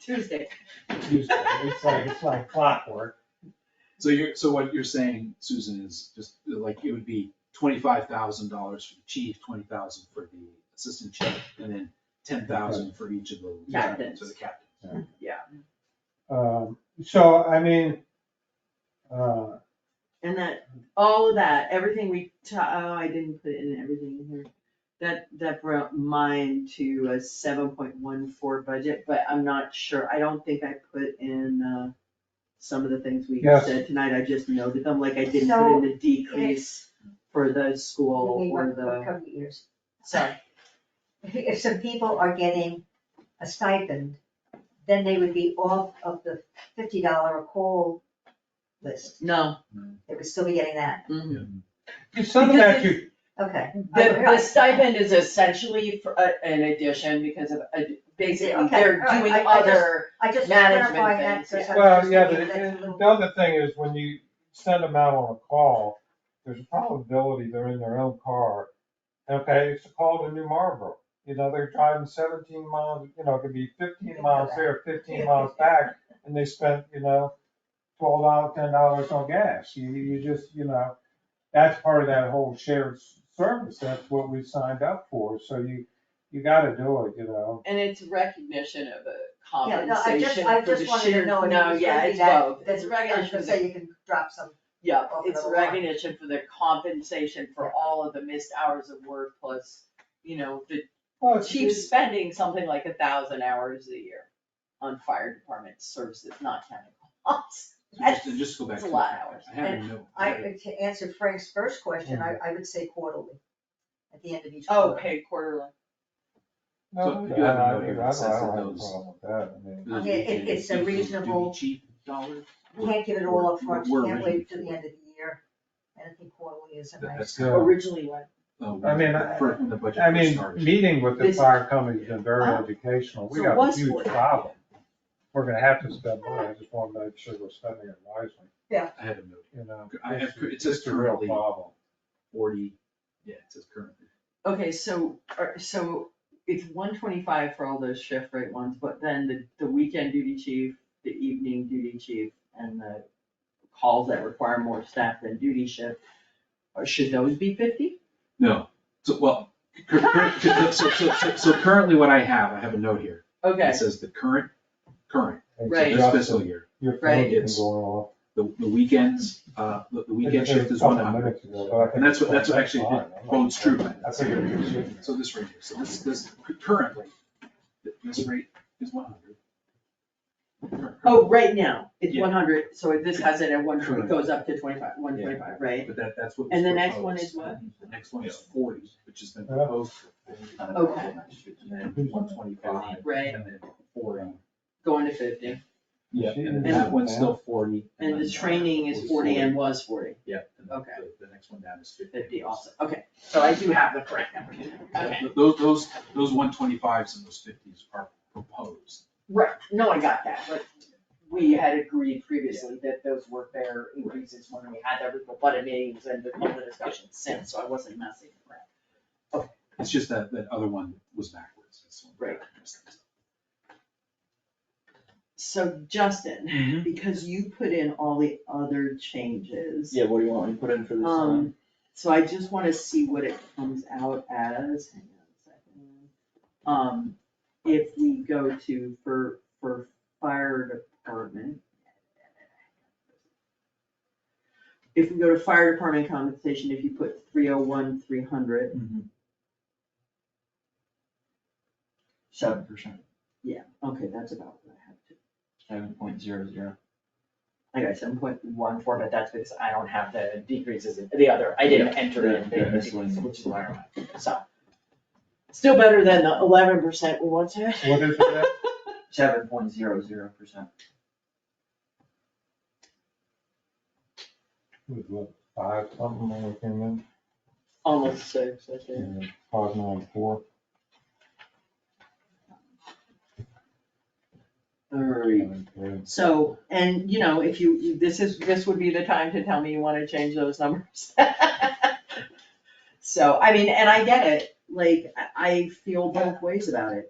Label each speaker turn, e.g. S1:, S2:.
S1: Tuesday.
S2: Tuesday, it's like, it's like clockwork.
S3: So you're, so what you're saying, Susan, is just like it would be twenty-five thousand dollars for the chief, twenty thousand for the assistant chief, and then ten thousand for each of the lieutenants or the captains.
S2: Um, so, I mean, uh,
S1: And that, all of that, everything we, ta- oh, I didn't put in everything in here. That, that brought mine to a seven point one four budget, but I'm not sure, I don't think I put in, uh, some of the things we
S2: Yes.
S1: said tonight, I just noted them, like I didn't put in the decrease for the school
S4: We
S1: or
S4: want
S1: the,
S4: cover years.
S1: sorry.
S4: If, if some people are getting a stipend, then they would be off of the fifty dollar a call list.
S1: No,
S4: They would still be getting that,
S1: mhm.
S2: Mm-hmm. some of that you,
S4: okay.
S5: The, the stipend is essentially for, uh, an addition because of, uh, basically,
S4: Okay,
S5: they're
S4: all right,
S5: doing
S4: I- I just-
S5: other,
S4: I just
S5: Management
S4: clarifying that,
S5: things,
S4: because
S5: yeah.
S4: I'm
S2: well,
S4: just
S2: yeah, the,
S4: thinking that's a
S2: and
S4: little-
S2: the other thing is when you send them out on a call, there's a probability they're in their own car. Okay, it's a call to New Marlboro, you know, they're driving seventeen miles, you know, it could be fifteen miles there, fifteen miles back, and they spent, you know, twelve dollars, ten dollars on gas, you, you just, you know, that's part of that whole shared s- service, that's what we signed up for, so you, you gotta do it, you know.
S5: and it's recognition of a
S4: Yeah, no, I just,
S5: compensation
S4: I
S5: for the
S4: just wanted to
S5: shared,
S4: know. if it
S5: no,
S4: was
S5: yeah,
S4: really
S5: it's
S4: that-
S5: both,
S4: That's
S5: it's
S4: right, I was
S5: recognition,
S4: gonna
S5: of-
S4: say you can drop some,
S5: yeah,
S4: off
S5: it's
S4: the line.
S5: recognition for the compensation for all of the missed hours of work plus, you know, the
S4: Oh,
S2: Well, it's-
S5: chief spending something like a thousand hours a year on fire department services, not counting costs.
S3: So just, and just go back
S5: That's
S3: to.
S5: a lot of hours.
S3: I have a note.
S4: I, to answer Frank's first question, I, I would say quarterly, at the end of each
S5: Oh,
S4: quarter.
S5: paid quarterly,
S2: No,
S3: So you have
S2: I-
S3: no
S2: I-
S3: idea
S2: I don't- I don't have a
S3: those-
S2: problem with that, I mean.
S3: Those
S4: Yeah, it- it's a
S3: lieutenants, do the- do the
S4: reasonable-
S3: Chief dollar?
S4: Can't give it all up front. you
S3: We're
S4: can't
S3: ready
S4: wait till the
S3: for it.
S4: end of the year, and I think quarterly is a
S3: That-
S4: nice.
S3: That's kind of,
S5: originally what?
S3: uh,
S2: I mean, I-
S3: for- when the budget
S2: I
S3: first
S2: mean,
S3: started.
S2: meeting with the
S5: This-
S2: fire company's been very
S5: Oh.
S2: educational, we
S5: So
S2: got a
S5: was
S2: huge
S5: forty.
S2: problem. We're gonna have to spend money, I just wanna make sure we're spending it wisely,
S3: I had a note,
S2: you know.
S3: I have-
S2: It's-
S3: it says
S2: It's a real
S3: currently-
S2: problem.
S3: forty, yeah, it says currently.
S1: Okay, so, are- so it's one twenty-five for all those shift rate ones, but then the, the weekend duty chief, the evening duty chief, and the calls that require more staff than duty shift, or should those be fifty?
S3: No, so, well, cur- cur- so, so, so- so currently what I have, I have a note here.
S1: Okay,
S3: It says the current, current,
S2: It's
S1: Right.
S3: this
S2: just-
S3: fiscal year.
S2: Your
S1: Right.
S2: phone's been
S3: It's-
S2: going off.
S3: The, the weekends, uh, the the weekend
S2: It's-
S3: shift
S2: it's
S3: is
S2: a couple
S3: one hundred,
S2: minutes ago, but I think
S3: and that's what,
S2: it's
S3: that's what actually
S2: fine. I'm not-
S3: quotes true. by
S2: I
S3: that.
S2: figured it should.
S3: So this rate, so this, this currently, th- this rate is one hundred.
S1: oh, right now, it's
S3: Yeah.
S1: one hundred, so this has it at one, it
S3: Correct.
S1: goes up to twenty-five, one twenty-five, right?
S3: But that, that's what.
S1: And
S3: was
S1: the next one
S3: proposed.
S1: is what?
S3: The next one is forty, which has been
S2: Yeah.
S3: proposed.
S1: Okay.
S3: And then one twenty-five.
S1: Right.
S3: And then forty.
S1: Going to fifty,
S3: Yeah, and
S2: She-
S3: then that one's still forty.
S1: and the
S3: then
S1: training is forty and was forty,
S3: Yeah. and then
S1: Okay.
S3: The, the next one down is fifty.
S1: fifty also, okay, so I do have the correct number, okay.
S3: Th- Those, those, those one twenty-fives and those fifties are proposed.
S5: Right, no, I got that, but we had agreed previously that those were fair increases when we had every budget meetings and the all the discussions since, so I wasn't messing around.
S3: It's just that, that other one was backwards. This one-
S5: Right.
S1: So Justin, because you put in all the other changes.
S6: Yeah, what do you want me to put in for this uh, time?
S1: Um, so I just wanna see what it comes out as, hang on a second. Um, if we go to for, for fire department. If we go to fire department compensation, if you put three oh one, three hundred,
S6: Seven percent,
S1: yeah, okay, that's about what I have to.
S6: seven point zero zero.
S1: I got seven point
S5: One form, but that's because I don't have the decreases, in the other, I didn't enter in
S6: Yeah, yeah,
S5: the
S6: this one.
S5: decreases, which is why I don't have, so. Still better than the eleven percent we once had.
S2: What is it?
S6: Seven point zero zero percent.
S2: It was what, Five, something when we came in,
S5: Almost six, I think.
S2: Yeah, five nine four.
S1: three. So, and you know, if you, you- this is, this would be the time to tell me you wanna change those numbers. So, I mean, and I get it, like, I, I feel both ways about it.